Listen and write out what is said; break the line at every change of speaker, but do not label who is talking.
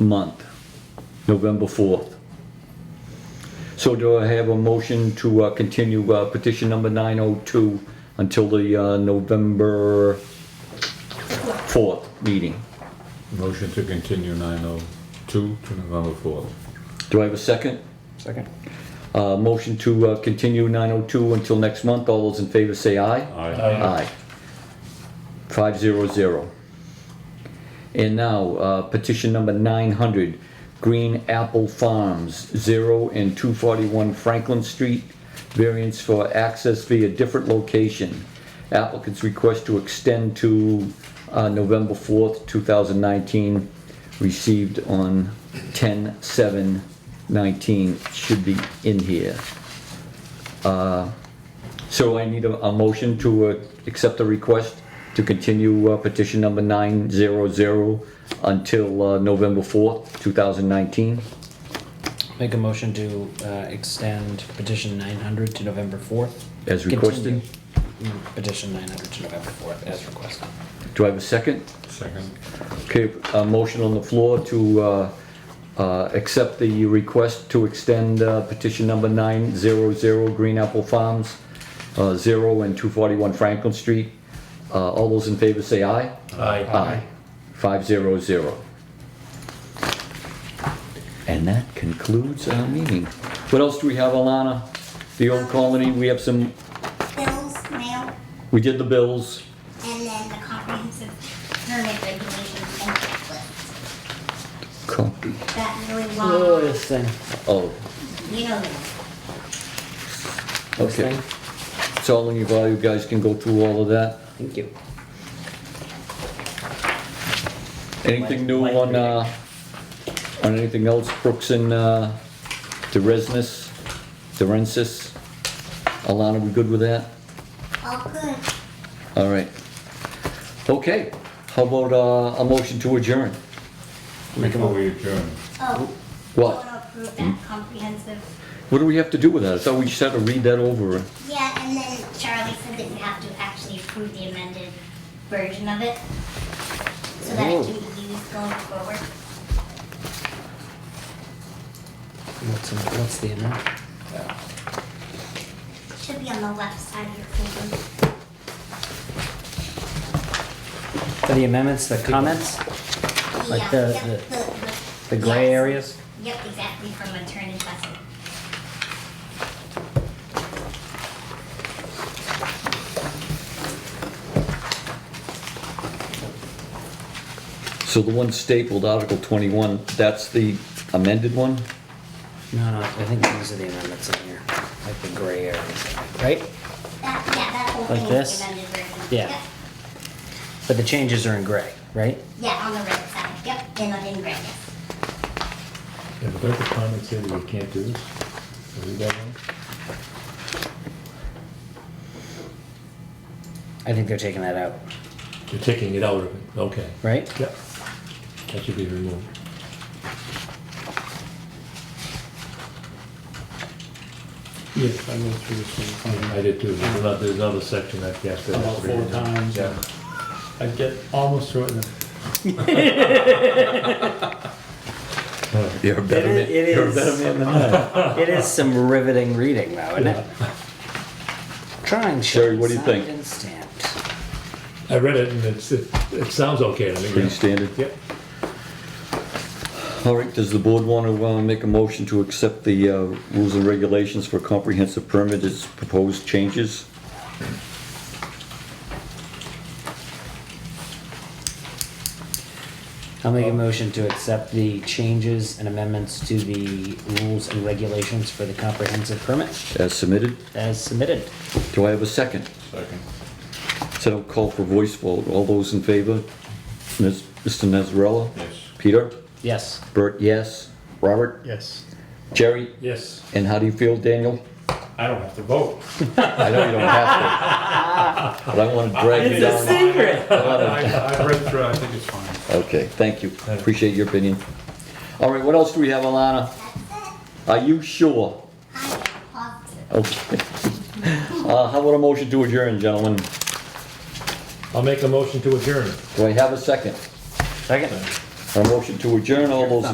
month, November 4th. So do I have a motion to uh, continue uh, petition number 902 until the uh, November 4th meeting?
Motion to continue 902 to November 4th.
Do I have a second?
Second.
Uh, Motion to uh, continue 902 until next month. All those in favor say aye.
Aye.
Aye. Five zero zero. And now, uh, petition number nine hundred, Green Apple Farms, zero and two forty-one Franklin Street, variance for access via different location. Applicant's request to extend to, uh, November fourth, two thousand nineteen, received on ten seven nineteen, should be in here. So I need a, a motion to uh, accept the request to continue uh, petition number 900 until uh, November 4th, 2019.
Make a motion to uh, extend petition 900 to November 4th.
As requested.
Continue. Mm, Petition 900 to November 4th, as requested.
Do I have a second?
Second.
Okay, a motion on the floor to uh, uh, accept the request to extend uh, petition number 900 Green Apple Farms, uh, 0 and 241 Franklin Street. Uh, All those in favor say aye. Aye. Five zero zero. And that concludes our meeting. What else do we have, Alana? The old colony, we have some,
bills, mail,
we did the bills.
and then the comprehensive permit regulations and checklist.
Copy.
That really long,
thing.
Oh,
you know,
okay. So all of you guys- you guys can go through all of that.
Thank you.
Anything new on, uh, on anything else, Brooks and, uh, DeResnis, DeRensis? Alana, we good with that?
all good.
All right. Okay, how about uh, a motion to adjourn?
Make a
Before we adjourn,
Oh,
What?
want to approve that comprehensive.
What do we have to do with that? I thought we just had to read that over.
Yeah, and then Charlie said that you have to actually approve the amended version of it, so that
Oh.
it can be used going forward.
What's, in- what's the amount?
Should be on the left side of your folder.
For the amendments, the comments, Like
Yeah,
the-
yep,
the-
the-
the gray
yes.
areas?
Yep, exactly, from attorney Russell.
So the one stapled, Article 21, that's the amended one?
No, no, I think these are the amendments in here, like the gray areas, right?
That, yeah, that whole
Like
thing
this?
is the amended version.
Yeah.
Yep.
But the changes are in gray, right?
Yeah, on the right side, yep, and I didn't grab it.
Yeah, but don't the comments say that we can't do this? Are we that one?
I think they're taking that out,
You're taking it out of it, okay.
right?
Yep. That should be removed.
Yes, I went through this one.
I did too, there's another, there's another section that, yes. that-
About four times.
Yeah.
I get almost through it and
You're a better man,
it
you're a
is.
better man than I.
It is some riveting reading, though, isn't it? Trying.
Sherry, what do you
signed
think?
and stamped.
I read it and it's, it, it sounds okay to me.
Pretty standard.
Yep.
All right, does the board want to uh, make a motion to accept the uh, rules and regulations for comprehensive permit as proposed changes?
I'll make a motion to accept the changes and amendments to the rules and regulations for the comprehensive permit
As submitted?
as submitted.
Do I have a second?
second.
So I'll call for voice vote. All those in favor? Ms- Mr. Nazarella?
Yes.
Peter?
Yes.
Bert, yes. Robert?
Yes.
Jerry?
Yes,
And how do you feel, Daniel?
I don't have to vote.
I know you don't have to, but I want to drag you down.
I, I read through, it. I think it's fine.
Okay, thank you. Appreciate your opinion. All right, what else do we have, Alana? Are you sure?
I am positive.
Okay. Uh, how about a motion to adjourn, gentlemen?
I'll make a motion to adjourn.
Do I have a second?
Second.
A motion to adjourn, all those